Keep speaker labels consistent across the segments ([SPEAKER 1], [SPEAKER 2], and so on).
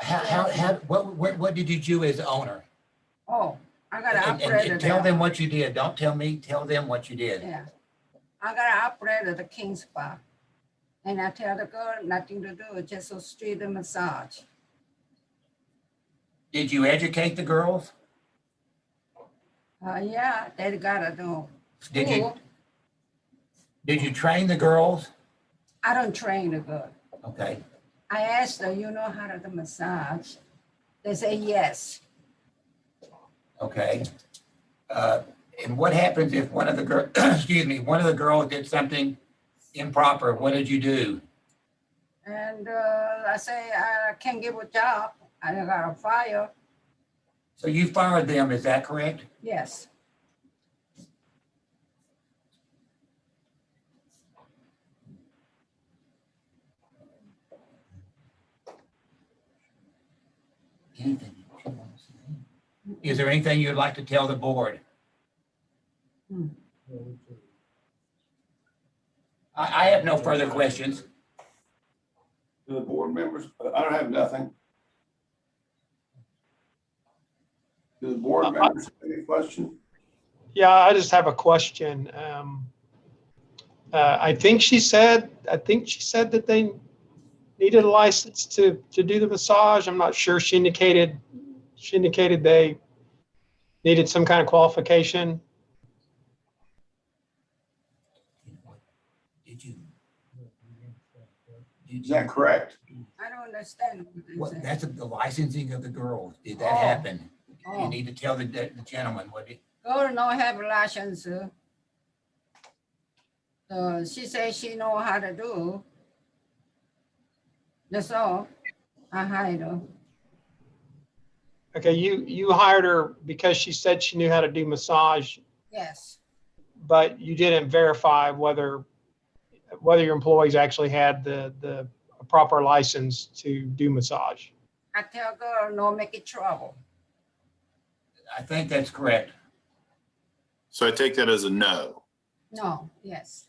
[SPEAKER 1] How, how, how, what, what, what did you do as owner?
[SPEAKER 2] Oh, I got an
[SPEAKER 1] And, and-
[SPEAKER 2] operator
[SPEAKER 1] and tell
[SPEAKER 2] there.
[SPEAKER 1] them what you did. Don't tell me, tell them what you did.
[SPEAKER 2] Yeah. I got an operator at the King's Spa. And I tell the girl nothing to do, just a street and massage.
[SPEAKER 1] Did you educate the girls?
[SPEAKER 2] Uh, yeah, they gotta do.
[SPEAKER 1] Did you,
[SPEAKER 2] school.
[SPEAKER 1] did you train the girls?
[SPEAKER 2] I don't train a girl.
[SPEAKER 1] Okay.
[SPEAKER 2] I asked her, you know how to do massage? They say yes.
[SPEAKER 1] Okay. Uh, And what happens if one of the girl, excuse me, one of the girls did something improper? What did you do?
[SPEAKER 2] And uh, I say, I can't give a job. I got a fire.
[SPEAKER 1] So you fired them, is that correct?
[SPEAKER 2] Yes.
[SPEAKER 1] Anything you want to say? Is there anything you'd like to tell the board? I, I have no further questions.
[SPEAKER 3] to the board members, I don't have nothing. To the board members, any question?
[SPEAKER 4] Yeah, I just have a question. Um, uh, I think she said, I think she said that they needed a license to, to do the massage. I'm not sure. She indicated, she indicated they needed some kind of qualification.
[SPEAKER 1] Did you?
[SPEAKER 3] Is that correct?
[SPEAKER 2] I don't understand. what
[SPEAKER 1] What,
[SPEAKER 2] they say.
[SPEAKER 1] that's the licensing of the girls. Did that
[SPEAKER 2] Oh.
[SPEAKER 1] happen? You
[SPEAKER 2] Oh,
[SPEAKER 1] need to tell the the gentleman what it,
[SPEAKER 2] Girl no have license. Uh, she say she know how to do. That's all. I hide her.
[SPEAKER 4] Okay, you, you hired her because she said she knew how to do massage,
[SPEAKER 2] Yes,
[SPEAKER 4] but you didn't verify whether, whether your employees actually had the, the proper license to do massage.
[SPEAKER 2] I tell girl no make it trouble.
[SPEAKER 1] I think that's correct.
[SPEAKER 5] So I take that as a no.
[SPEAKER 2] No, yes.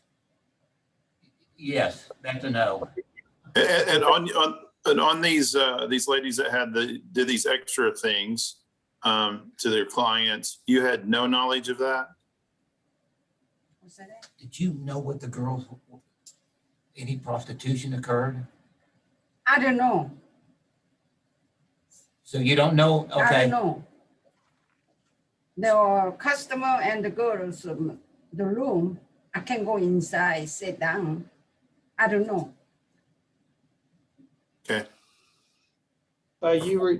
[SPEAKER 1] Yes, that's a no.
[SPEAKER 5] And, and on, on, and on these, uh, these ladies that had the, did these extra things, um, to their clients, you had no knowledge of that?
[SPEAKER 2] What's that?
[SPEAKER 1] Did you know what the girls, any prostitution occurred?
[SPEAKER 2] I don't know.
[SPEAKER 1] So you don't know,
[SPEAKER 2] I don't
[SPEAKER 1] okay,
[SPEAKER 2] know. There are customer and the girls, um, the room, I can go inside, sit down. I don't know.
[SPEAKER 4] Uh, you were,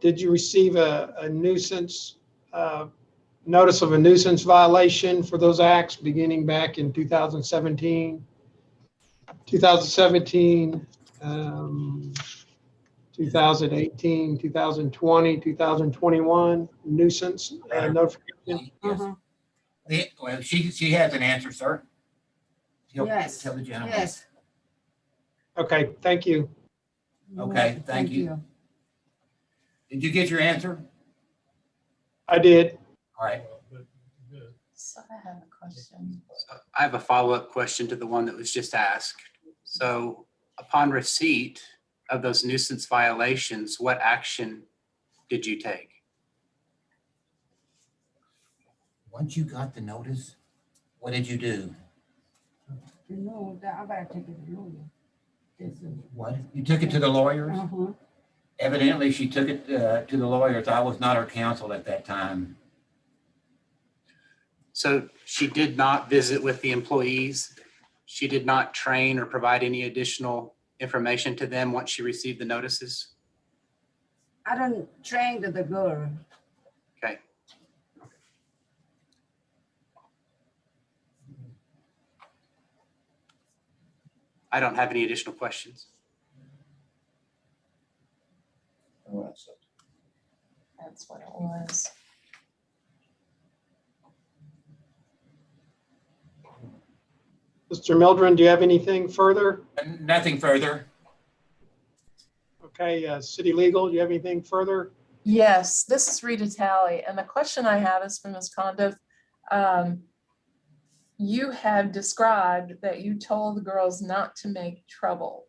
[SPEAKER 4] did you receive a, a nuisance, uh, notice of a nuisance violation for those acts beginning back in 2017? 2017, um, 2018, 2020, 2021 nuisance uh, notification?
[SPEAKER 1] Yes.
[SPEAKER 2] Uh-huh.
[SPEAKER 1] The- well, she, she has an answer, sir. Tell-
[SPEAKER 2] Yes,
[SPEAKER 1] Tell the gentleman.
[SPEAKER 2] Yes.
[SPEAKER 4] Okay, thank you.
[SPEAKER 2] You're
[SPEAKER 1] Okay,
[SPEAKER 2] welcome.
[SPEAKER 1] thank you. Did you get your answer?
[SPEAKER 4] I did.
[SPEAKER 1] All right,
[SPEAKER 6] So I have a question.
[SPEAKER 7] So I have a follow-up question to the one that was just asked. So upon receipt of those nuisance violations, what action did you take?
[SPEAKER 1] once you got the notice, what did you do?
[SPEAKER 2] No, that- I gotta take it to lawyer. This is-
[SPEAKER 1] What? You took it to the lawyers?
[SPEAKER 2] Uh-huh.
[SPEAKER 1] Evidently, she took it uh, to the lawyers. I was not her counsel at that time.
[SPEAKER 7] So she did not visit with the employees. She did not train or provide any additional information to them once she received the notices.
[SPEAKER 2] I don't train the the girl.
[SPEAKER 7] Okay. I don't have any additional questions.
[SPEAKER 6] That's what it was.
[SPEAKER 4] Mr. Mildren, do you have anything further?
[SPEAKER 1] Nothing further.
[SPEAKER 4] Okay, uh, city legal, do you have anything further?
[SPEAKER 6] Yes, this is Rita Talley, and the question I have is from Ms. Condiff. Um, You have described that you told the girls not to make trouble.